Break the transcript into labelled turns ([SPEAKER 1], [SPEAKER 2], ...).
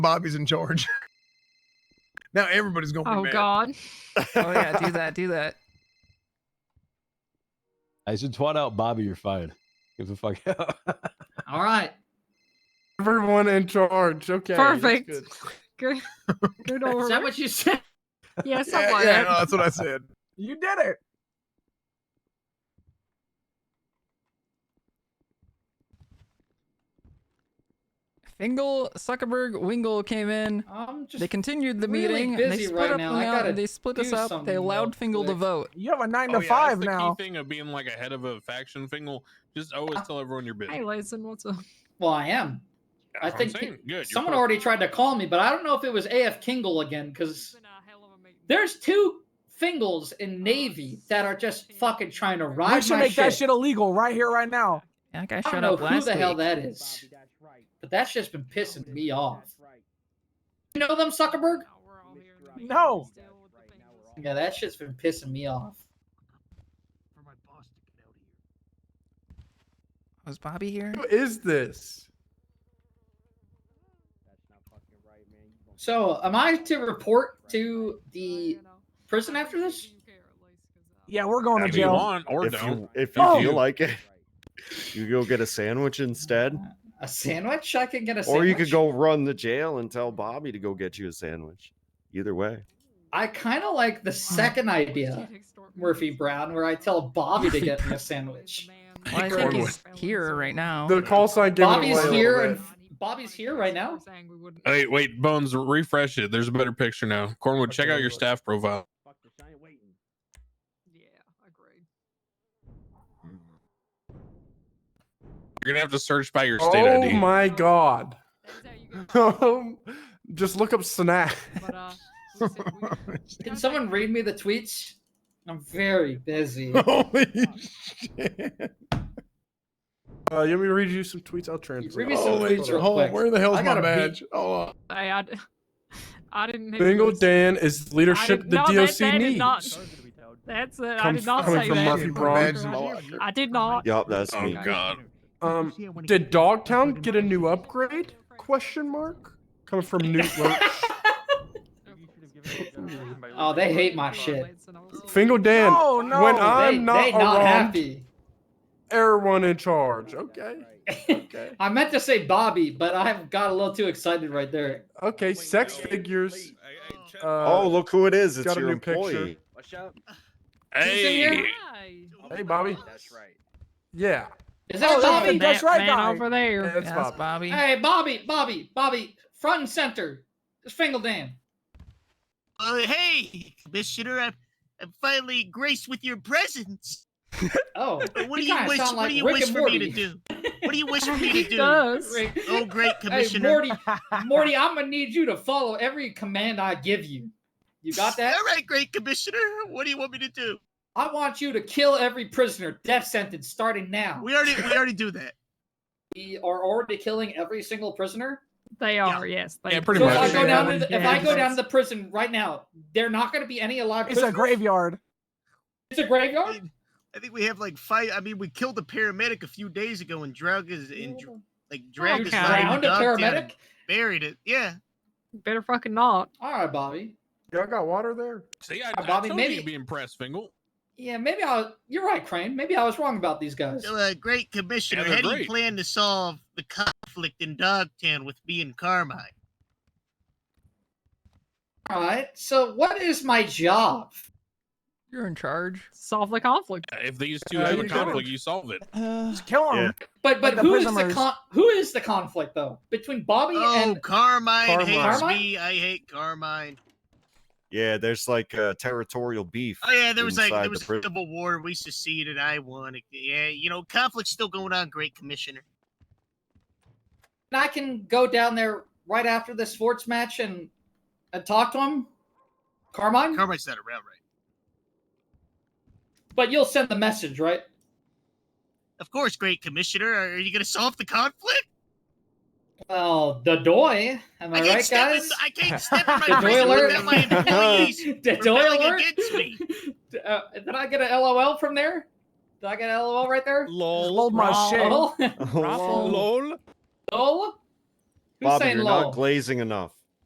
[SPEAKER 1] Bobby's in charge. now everybody's gonna be
[SPEAKER 2] Oh
[SPEAKER 1] mad.
[SPEAKER 2] God.
[SPEAKER 3] Oh yeah, do that, do that.
[SPEAKER 4] I should twat out Bobby. You're fired. Give the fuck out.
[SPEAKER 5] All right.
[SPEAKER 6] Everyone in charge. Okay. that's
[SPEAKER 2] Perfect.
[SPEAKER 6] good.
[SPEAKER 2] Good. Good over.
[SPEAKER 5] Is that what you said?
[SPEAKER 2] Yeah,
[SPEAKER 1] Yeah,
[SPEAKER 2] something like
[SPEAKER 1] yeah,
[SPEAKER 2] that.
[SPEAKER 1] no, that's what I said. You did it.
[SPEAKER 3] Fingal, Zuckerberg, Wingle came in.
[SPEAKER 5] I'm just.
[SPEAKER 3] They continued the
[SPEAKER 5] really
[SPEAKER 3] meeting.
[SPEAKER 5] busy
[SPEAKER 3] they split
[SPEAKER 5] right
[SPEAKER 3] up
[SPEAKER 5] now.
[SPEAKER 3] the
[SPEAKER 5] I
[SPEAKER 3] out-
[SPEAKER 5] gotta
[SPEAKER 3] they split us
[SPEAKER 5] do
[SPEAKER 3] up.
[SPEAKER 5] something
[SPEAKER 3] They allowed
[SPEAKER 5] real
[SPEAKER 3] Fingal to
[SPEAKER 5] quick.
[SPEAKER 3] vote.
[SPEAKER 7] You have a nine
[SPEAKER 8] Oh,
[SPEAKER 7] to
[SPEAKER 8] yeah,
[SPEAKER 7] five
[SPEAKER 8] that's
[SPEAKER 7] now.
[SPEAKER 8] The key thing of being like ahead of a faction Fingal, just always
[SPEAKER 5] Ah.
[SPEAKER 8] tell everyone you're busy.
[SPEAKER 2] Hey, Lason, what's up?
[SPEAKER 5] Well, I am. I
[SPEAKER 8] I'm
[SPEAKER 5] think
[SPEAKER 8] saying, good. you're
[SPEAKER 5] Someone
[SPEAKER 8] perfect.
[SPEAKER 5] already tried to call me, but I don't know if it was AF Kingle again because there's two Fingles in Navy that are just fucking trying to ride
[SPEAKER 7] We should
[SPEAKER 5] my
[SPEAKER 7] make
[SPEAKER 5] shit.
[SPEAKER 7] that shit illegal right here, right now.
[SPEAKER 3] That guy
[SPEAKER 5] I
[SPEAKER 3] showed
[SPEAKER 5] don't know
[SPEAKER 3] up
[SPEAKER 5] who
[SPEAKER 3] last
[SPEAKER 5] the hell
[SPEAKER 3] week.
[SPEAKER 5] that is, but that's just been pissing me off. You know them, Zuckerberg?
[SPEAKER 7] No.
[SPEAKER 5] Yeah, that shit's been pissing me off.
[SPEAKER 3] Was Bobby here?
[SPEAKER 6] Who is this?
[SPEAKER 5] So, am I to report to
[SPEAKER 2] uh,
[SPEAKER 5] the prison after this?
[SPEAKER 7] Yeah, we're going to
[SPEAKER 8] if you
[SPEAKER 7] jail.
[SPEAKER 8] want or
[SPEAKER 9] if
[SPEAKER 8] don't.
[SPEAKER 9] you if you
[SPEAKER 7] Oh.
[SPEAKER 9] feel like it, you go get a sandwich instead,
[SPEAKER 5] A sandwich? I can get a sandwich.
[SPEAKER 9] or you could go run the jail and tell Bobby to go get you a sandwich. Either way,
[SPEAKER 5] I kind of like the second idea, Murphy Brown, where I tell Bobby to get me a sandwich.
[SPEAKER 3] Well, I think he's here right now.
[SPEAKER 6] The call sign gave it
[SPEAKER 5] Bobby's
[SPEAKER 6] away a little
[SPEAKER 5] here
[SPEAKER 6] bit.
[SPEAKER 5] and- Bobby's here right now?
[SPEAKER 8] Wait, wait, Bones, refresh it. There's a better picture now. Cornwood, check out your staff profile.
[SPEAKER 2] Yeah, agreed.
[SPEAKER 8] You're gonna have to search by your state
[SPEAKER 6] Oh
[SPEAKER 8] ID.
[SPEAKER 6] my god.
[SPEAKER 2] That is how you get
[SPEAKER 6] Um, Just look up snack.
[SPEAKER 2] But uh, we said we-
[SPEAKER 5] Can someone read me the tweets? I'm very busy.
[SPEAKER 1] Holy shit.
[SPEAKER 6] Uh, you want me to read you some tweets? I'll translate.
[SPEAKER 5] Read me
[SPEAKER 8] Oh.
[SPEAKER 5] some
[SPEAKER 1] Holy
[SPEAKER 5] tweets
[SPEAKER 1] shit.
[SPEAKER 5] real
[SPEAKER 1] Hold on,
[SPEAKER 5] quick.
[SPEAKER 1] where the hell's
[SPEAKER 5] I
[SPEAKER 1] my
[SPEAKER 5] gotta
[SPEAKER 1] badge?
[SPEAKER 5] pee.
[SPEAKER 1] Oh,
[SPEAKER 2] I, I, I didn't. hit
[SPEAKER 6] Bingo
[SPEAKER 2] this.
[SPEAKER 6] Dan is leadership the
[SPEAKER 2] no, that-
[SPEAKER 6] DOC
[SPEAKER 2] that is
[SPEAKER 6] needs.
[SPEAKER 2] not- That's it. I
[SPEAKER 6] Come
[SPEAKER 2] did not
[SPEAKER 6] coming
[SPEAKER 2] say
[SPEAKER 6] from
[SPEAKER 2] that.
[SPEAKER 6] Murphy Brown.
[SPEAKER 2] I did not.
[SPEAKER 9] yup, that's
[SPEAKER 8] Oh
[SPEAKER 9] me.
[SPEAKER 8] god.
[SPEAKER 6] Um, did Dogtown get a new upgrade? Question mark. Coming from Newt Roach.
[SPEAKER 5] Oh, they hate my shit.
[SPEAKER 6] Fingo Dan,
[SPEAKER 7] No,
[SPEAKER 2] Oh,
[SPEAKER 7] no.
[SPEAKER 6] when I'm
[SPEAKER 5] Oh, they,
[SPEAKER 6] not
[SPEAKER 5] they not
[SPEAKER 6] around-
[SPEAKER 5] happy.
[SPEAKER 6] everyone in charge. Okay. Okay.
[SPEAKER 5] I meant to say Bobby, but I got a little too excited right there.
[SPEAKER 6] Okay. Sex figures.
[SPEAKER 9] Oh,
[SPEAKER 6] Uh,
[SPEAKER 9] look who it is! It's
[SPEAKER 6] got a
[SPEAKER 9] your
[SPEAKER 6] new picture.
[SPEAKER 9] employee.
[SPEAKER 8] Hey,
[SPEAKER 2] Hi.
[SPEAKER 6] Hey, Bobby.
[SPEAKER 2] That's right.
[SPEAKER 6] yeah.
[SPEAKER 5] Is that
[SPEAKER 7] Oh,
[SPEAKER 5] Bobby?
[SPEAKER 7] that's
[SPEAKER 2] That
[SPEAKER 7] right,
[SPEAKER 2] man
[SPEAKER 7] guy.
[SPEAKER 2] over there.
[SPEAKER 6] That's
[SPEAKER 3] Yes,
[SPEAKER 6] Bob.
[SPEAKER 3] Bobby.
[SPEAKER 5] Hey, Bobby, Bobby, Bobby, front and center. It's Fingal Dan.
[SPEAKER 10] Uh, hey, Commissioner, I'm, I'm finally graced with your presence.
[SPEAKER 5] Oh,
[SPEAKER 10] Uh, What do
[SPEAKER 5] he
[SPEAKER 10] you
[SPEAKER 5] kinda
[SPEAKER 10] wish?
[SPEAKER 5] sound
[SPEAKER 10] What
[SPEAKER 5] like
[SPEAKER 10] do you
[SPEAKER 5] Rick
[SPEAKER 10] wish
[SPEAKER 5] and
[SPEAKER 10] for me to
[SPEAKER 5] Morty.
[SPEAKER 10] do? What do you wish for me
[SPEAKER 2] He
[SPEAKER 10] to do?
[SPEAKER 2] does.
[SPEAKER 5] Rick-
[SPEAKER 10] Oh, great,
[SPEAKER 5] Hey,
[SPEAKER 10] Commissioner.
[SPEAKER 5] Morty, Morty, I'm gonna need you to follow every command I give you. You got that?
[SPEAKER 10] All right, great Commissioner. What do you want me to do?
[SPEAKER 5] I want you to kill every prisoner, death sentence, starting now.
[SPEAKER 10] We already we already do that.
[SPEAKER 5] We are already killing every single prisoner.
[SPEAKER 2] They are. Yes. They
[SPEAKER 8] Yeah, pretty
[SPEAKER 5] So if
[SPEAKER 8] much.
[SPEAKER 5] I go
[SPEAKER 8] Yeah,
[SPEAKER 5] down to the, if I go down to
[SPEAKER 2] to
[SPEAKER 5] the prison right now, they're not going to be any alive.
[SPEAKER 7] It's a
[SPEAKER 5] prisoners?
[SPEAKER 7] graveyard.
[SPEAKER 5] It's a
[SPEAKER 10] I,
[SPEAKER 5] graveyard.
[SPEAKER 10] mean, I think we have like five. I mean, we killed a paramedic a few days ago and drug his and dr- like dragged his
[SPEAKER 2] Okay.
[SPEAKER 10] lying
[SPEAKER 5] Drowned Oh, a
[SPEAKER 10] dog down and
[SPEAKER 5] paramedic.
[SPEAKER 10] buried it. Yeah.
[SPEAKER 2] better fucking not.
[SPEAKER 5] All right, Bobby.
[SPEAKER 6] Y'all got water there?
[SPEAKER 8] see, I, I
[SPEAKER 5] Uh, Bobby,
[SPEAKER 8] told
[SPEAKER 5] maybe-
[SPEAKER 8] you would be impressed, Fingal.
[SPEAKER 5] Yeah, maybe I. was- You're right, Crane. Maybe I was wrong about these guys.
[SPEAKER 10] So, uh, great Commissioner,
[SPEAKER 8] they're
[SPEAKER 10] how do you
[SPEAKER 8] great.
[SPEAKER 10] plan to solve the conflict in Dogtown with me and Carmine?
[SPEAKER 5] All right. So what is my job?
[SPEAKER 3] You're in charge.
[SPEAKER 2] Solve the conflict.
[SPEAKER 8] Uh, If these two
[SPEAKER 6] Uh,
[SPEAKER 8] have
[SPEAKER 6] you
[SPEAKER 8] a
[SPEAKER 6] got him.
[SPEAKER 8] conflict, you solve it.
[SPEAKER 3] Uh,
[SPEAKER 7] Just kill him.
[SPEAKER 5] But
[SPEAKER 7] Like
[SPEAKER 5] but
[SPEAKER 7] the
[SPEAKER 5] who is the
[SPEAKER 7] prisoners.
[SPEAKER 5] con- who is the conflict though between Bobby
[SPEAKER 10] Oh,
[SPEAKER 5] and
[SPEAKER 10] Carmine, hates
[SPEAKER 5] Carmine?
[SPEAKER 10] me. I hate Carmine.
[SPEAKER 9] Yeah, there's like uh, territorial beef.
[SPEAKER 10] Oh yeah, there was like
[SPEAKER 9] inside the
[SPEAKER 10] there was a
[SPEAKER 9] prison.
[SPEAKER 10] civil war. We seceded. I won. Yeah, you know, conflict's still going on. Great commissioner.
[SPEAKER 5] I can go down there right after the sports match and and talk to him, Carmine.
[SPEAKER 10] Carmine's not around, right?
[SPEAKER 5] but you'll send the message, right?
[SPEAKER 10] Of course, great commissioner. Are you gonna solve the conflict?
[SPEAKER 5] Well, Oh, the doy. Am I,
[SPEAKER 10] can't
[SPEAKER 5] right,
[SPEAKER 10] step
[SPEAKER 5] guys?
[SPEAKER 10] In, I can't step in
[SPEAKER 5] The
[SPEAKER 10] my
[SPEAKER 5] doy
[SPEAKER 10] prison
[SPEAKER 5] alert.
[SPEAKER 10] without my employees.
[SPEAKER 5] the doy
[SPEAKER 10] rebelling
[SPEAKER 5] alert.
[SPEAKER 10] against me.
[SPEAKER 5] Uh, did I get a LOL from there? Did I get a LOL right there?
[SPEAKER 7] Just Load my shit.
[SPEAKER 5] LOL.
[SPEAKER 3] Raffle.
[SPEAKER 5] LOL. Who's
[SPEAKER 9] Bobby,
[SPEAKER 5] saying
[SPEAKER 9] you're
[SPEAKER 5] low?
[SPEAKER 9] not glazing enough.